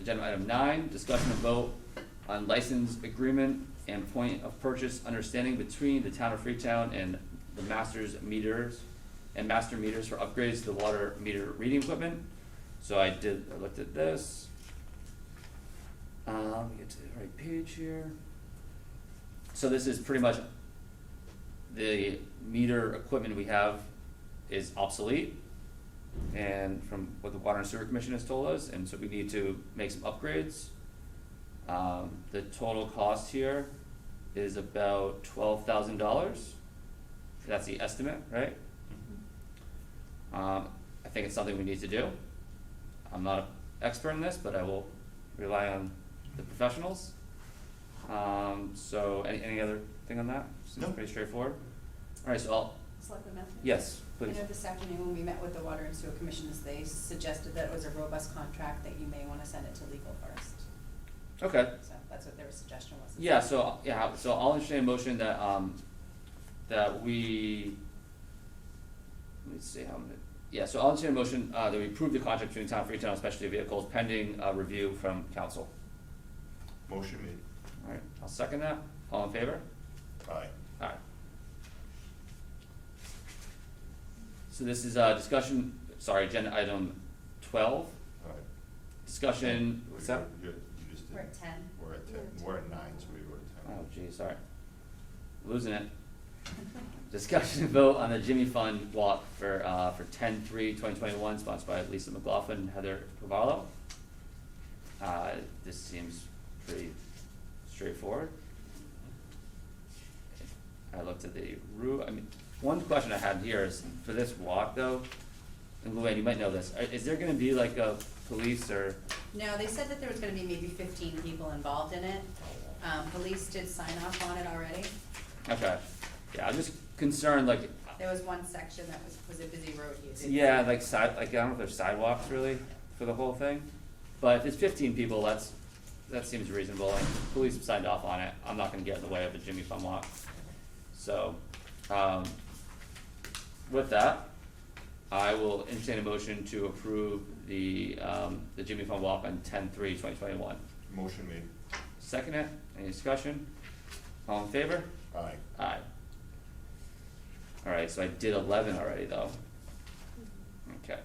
Agenda item nine, discussion and vote on license agreement and point of purchase understanding between the town of Freetown and the masters meters and master meters for upgrades to the water meter reading equipment. So I did, I looked at this. Um, get to the right page here. So this is pretty much the meter equipment we have is obsolete. And from what the Water and Sewer Commission has told us, and so we need to make some upgrades. Um, the total cost here is about twelve thousand dollars. That's the estimate, right? Um, I think it's something we need to do. I'm not an expert in this, but I will rely on the professionals. Um, so any, any other thing on that? Seems No. pretty straightforward. Alright, so I'll, Selectman Matthews? yes, I please. know this afternoon when we met with the Water and Sewer Commissioners, they suggested that it was a robust contract, that you may wanna send it to legal first. Okay. So that's what their suggestion was. Yeah, so, yeah, so I'll entertain a motion that, um, that we, let me see how many, yeah, so I'll entertain a motion, uh, that we approve the contract between Town of Freetown and Specialty Vehicles pending, uh, review from council. Motion made. Alright, I'll second that, all in favor? Aye. Alright. So this is, uh, discussion, sorry, agenda item twelve, Aye. discussion, what's that? You're- You just did. We're at ten. We're at ten, we're at nine, so we were at ten. Oh geez, sorry, losing it. Discussion and vote on the Jimmy Fund walk for, uh, for ten three twenty twenty-one, sponsored by Lisa McLaughlin and Heather Cavallo. Uh, this seems pretty straightforward. I looked at the roof, I mean, one question I had here is, for this walk though, and Luann, you might know this, i- is there gonna be like a police or, No, they said that there was gonna be maybe fifteen people involved in it. Um, police did sign off on it already. okay, yeah, I'm just concerned, like, There was one section that was, was a busy road usage. Yeah, like side, like I don't know if there's sidewalks really for the whole thing, but if it's fifteen people, that's, that seems reasonable, and police have signed off on it, I'm not gonna get in the way of a Jimmy Fun Walk. So, um, with that, I will entertain a motion to approve the, um, the Jimmy Fun Walk on ten three twenty twenty one. Motion made. Second it, any discussion? All in favor? Aye. Aye. Alright, so I did eleven already though. Okay.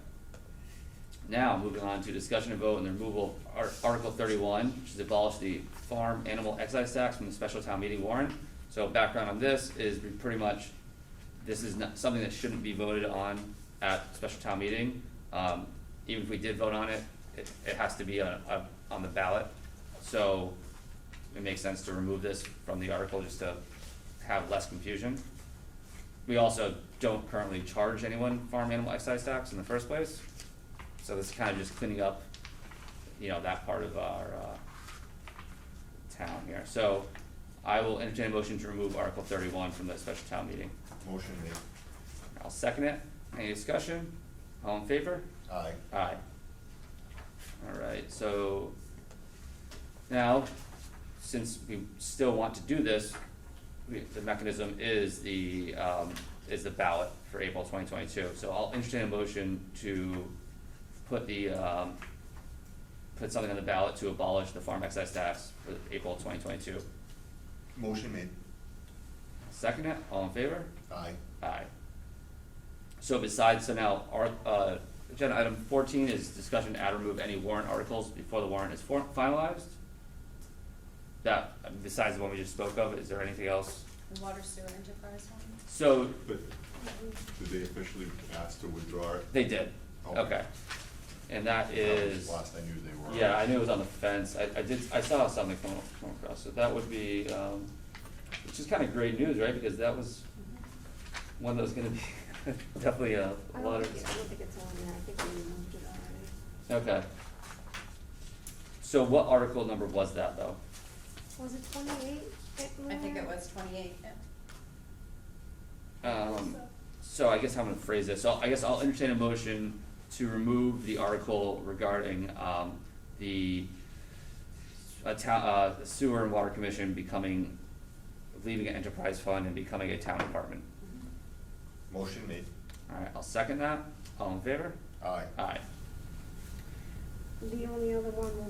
Now, moving on to discussion and vote on the removal of Ar- Article thirty-one, which is abolish the farm animal excise tax from the special town meeting warrant. So background on this is we pretty much, this is not, something that shouldn't be voted on at special town meeting. Um, even if we did vote on it, it, it has to be on, on- on the ballot. So it makes sense to remove this from the article just to have less confusion. We also don't currently charge anyone farm animal excise tax in the first place, so this is kind of just cleaning up, you know, that part of our, uh, town here. So I will entertain a motion to remove Article thirty-one from the special town meeting. Motion made. I'll second it. Any discussion? All in favor? Aye. Aye. Alright, so now, since we still want to do this, we, the mechanism is the, um, is the ballot for April twenty twenty-two. So I'll entertain a motion to put the, um, put something on the ballot to abolish the farm excise tax for April twenty twenty-two. Motion made. Second it, all in favor? Aye. Aye. So besides, so now, our, uh, agenda item fourteen is discussion to add or remove any warrant articles before the warrant is for- finalized. That, besides the one we just spoke of, is there anything else? The water sewer enterprise one? So, But did they officially ask to withdraw it? they did, Okay. okay. And that Oh. That was is, Last I knew they were. yeah, I knew it was on the fence, I, I did, I saw something come, come across, so that would be, um, which is kinda great news, right, because that was one that was gonna be definitely a I lot don't of. think, it- I don't think it's on there, I think we removed it already. Okay. So what article number was that though? Was it twenty-eight? I think it was twenty-eight, yeah. Um, so I guess I'm gonna phrase this, so I guess I'll entertain a motion to remove the article regarding, um, the a town, uh, the sewer and water commission becoming, leaving an enterprise fund and becoming a town department. Motion made. Alright, I'll second that, all in favor? Aye. Aye. The only other one was